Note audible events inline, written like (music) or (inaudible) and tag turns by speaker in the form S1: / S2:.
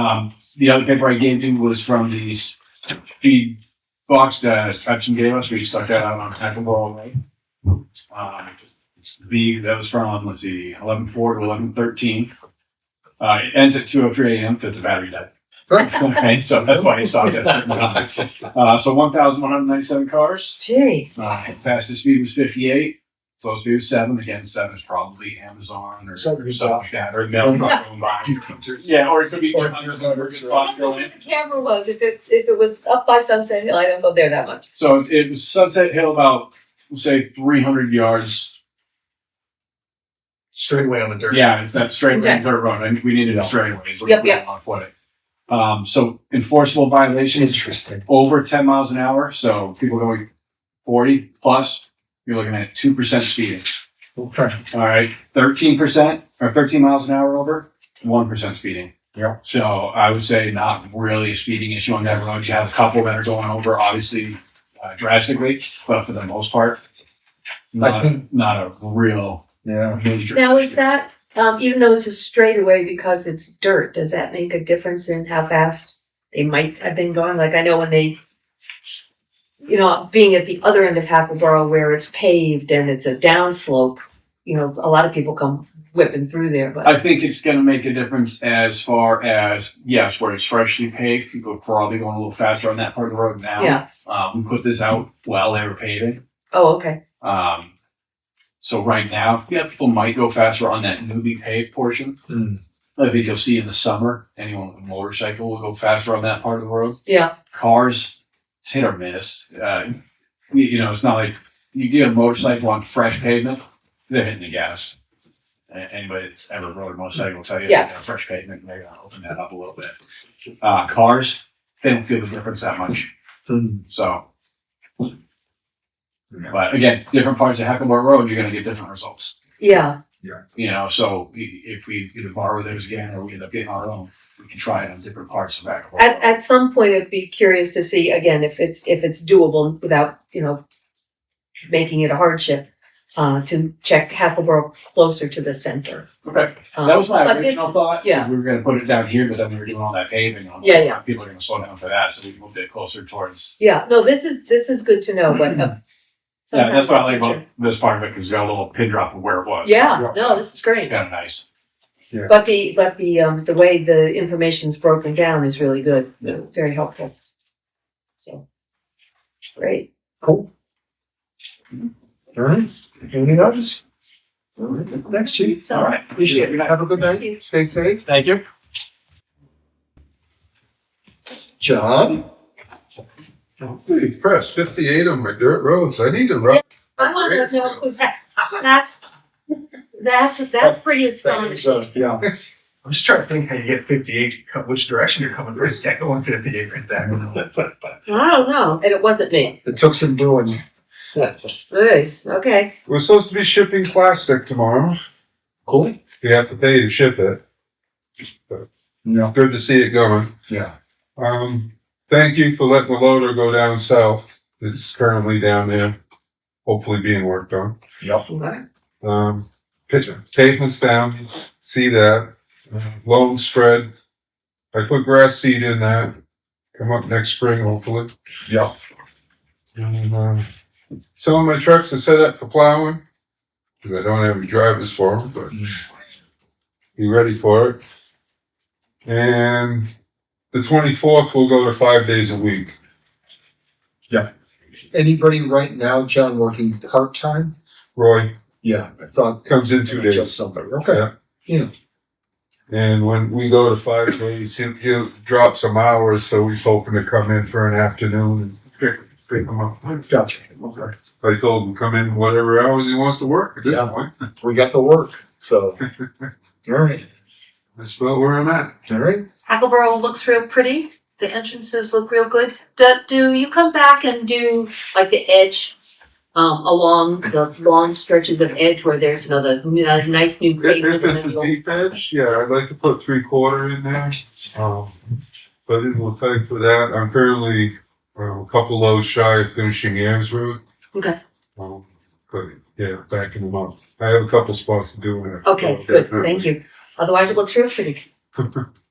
S1: Um, the other paper I gave you was from the speed box that Pepsi gave us. We stuck that out on Hackleboro Lane. Um, the, that was from, let's see, eleven four to eleven thirteen. Uh, it ends at two oh three AM because the battery died. Okay, so that's why it stopped at a certain time. Uh, so one thousand one hundred ninety-seven cars.
S2: Jeez.
S1: Uh, fastest speed was 58. Slowest speed was 7. Again, 7 is probably Amazon or
S3: Seven
S1: something
S3: is
S1: like that. Or no, Yeah, or it could be
S3: Or
S1: under-
S3: under-
S1: under-
S3: under-
S2: I don't know where the camera was. If it's, if it was up by Sunset Hill, I don't go there that much.
S1: So it, it was Sunset Hill about, we'll say, 300 yards.
S3: Straight away on the dirt.
S1: Yeah, it's that straight
S2: Okay.
S1: dirt road. And we needed a straight away.
S2: Yep, yep.
S1: Um, so enforceable violations
S3: Interesting.
S1: over 10 miles an hour. So people going 40 plus, you're looking at 2% speeding.
S3: Okay.
S1: All right, thirteen percent or thirteen miles an hour over, one percent speeding.
S3: Yeah.
S1: So I would say not really a speeding issue on that road. You have a couple that are going over, obviously uh, drastically, but for the most part,
S3: I
S1: not
S3: think-
S1: not a real
S3: Yeah.
S1: major.
S2: Now, is
S1: issue.
S2: that, um, even though it's a straightaway because it's dirt, does that make a difference in how fast they might have been going? Like, I know when they, you know, being at the other end of Hackleboro where it's paved and it's a downslope, you know, a lot of people come whipping through there, but
S1: I think it's going to make a difference as far as yes, where it's freshly paved, people are probably going a little faster on that part of the road now.
S2: yeah.
S1: Uh, we put this out while they were paving.
S2: Oh, okay.
S1: Um, so right now, yeah, people might go faster on that newbie paved portion.
S3: Hmm.
S1: I think you'll see in the summer, anyone with a motorcycle will go faster on that part of the road.
S2: Yeah.
S1: Cars, it's hit or miss. Uh, you, you know, it's not like you get a motorcycle on fresh pavement, they're hitting the gas. A- Anybody that's ever rode a motorcycle will tell you
S2: Yeah.
S1: that on fresh pavement, they're gonna open that up a little bit. Uh, cars, they don't feel the difference that much.
S3: Hmm.
S1: So but again, different parts of Hackleboro Road, you're going to get different results.
S2: Yeah.
S1: You know, so i- if we either borrow theirs again or we end up getting our own, we can try it on different parts of Hackleboro.
S2: At,
S1: Road.
S2: at some point, I'd be curious to see again if it's, if it's doable without, you know, making it a hardship, uh, to check Hackleboro closer to the center.
S1: Okay,
S2: Um,
S1: that was my
S2: but this
S1: original
S2: is-
S1: thought.
S2: yeah.
S1: We were going to put it down here, but then we were doing all that paving. and I'm like,
S2: Yeah, yeah.
S1: People are going to slow down for that, so we moved it closer towards.
S2: Yeah, no, this is, this is good to know, but. uh,
S1: Yeah, that's what I like
S2: sometimes-
S1: about this part of it, because it's got a little pin drop of where it was.
S2: Yeah, no, this is great.
S1: Kind of nice.
S2: But the, but the, um, the way the information's broken down is really good,
S1: Yeah.
S2: very helpful. So. Great.
S3: Cool. All right. Anything else? All right. Next sheet.
S2: So-
S3: Appreciate it. Have a good
S2: Thank you.
S3: night. Stay safe.
S1: Thank you.
S3: John?
S4: Pretty pressed, fifty-eight on my dirt roads, I need to run.
S2: I wanna know, 'cause that's, that's, that's pretty astonishing.
S3: Yeah.
S5: I'm just trying to think how you get 58, co- which direction you're coming from. You can't go on 58 right
S1: (laughs)
S5: there.
S2: I don't know, and it wasn't me.
S3: It took some doing.
S2: Nice, okay.
S4: We're supposed to be shipping plastic tomorrow.
S3: Cool.
S4: You have to pay to ship it.
S3: Yeah.
S4: It's good to see it going.
S3: Yeah.
S4: Um, thank you for letting the loader go down south. It's currently down there, hopefully being worked on. Um, pitch, pavement's down, see that, loan spread. I put grass seed in that, come up next spring hopefully.
S3: Yeah.
S4: And, um, some of my trucks are set up for plowing, cause I don't have any drivers for them, but be ready for it. And the twenty-fourth, we'll go to five days a week.
S3: Anybody right now, John, working part-time?
S4: Roy
S3: Yeah, I thought.
S4: comes in two days.
S3: Just somebody. Okay.
S4: And when we go to five days, he'll, he'll drop some hours, so he's hoping to come in for an afternoon and pick, pick him up.
S3: Gotcha. Okay.
S4: I told him, come in whatever hours he wants to work at this
S3: Yeah.
S4: point.
S3: We got the work, so. (laughs) All right.
S4: That's about where I'm at.
S3: All right.
S2: Hackleboro looks real pretty. The entrances look real good. Do, do you come back and do like the edge um, along the long stretches of edge where there's you know the uh, nice new pavement
S4: If
S2: and
S4: it's
S2: then
S4: a
S2: you'll-
S4: deep edge, yeah, I'd like to put three quarter in there. Um, but it will take for that. I'm currently um, a couple loads shy of finishing Yams Road.
S2: Okay.
S4: Um, but yeah, backing them up. I have a couple spots to do in there.
S2: Okay, good. Thank you. Otherwise, it looks real pretty.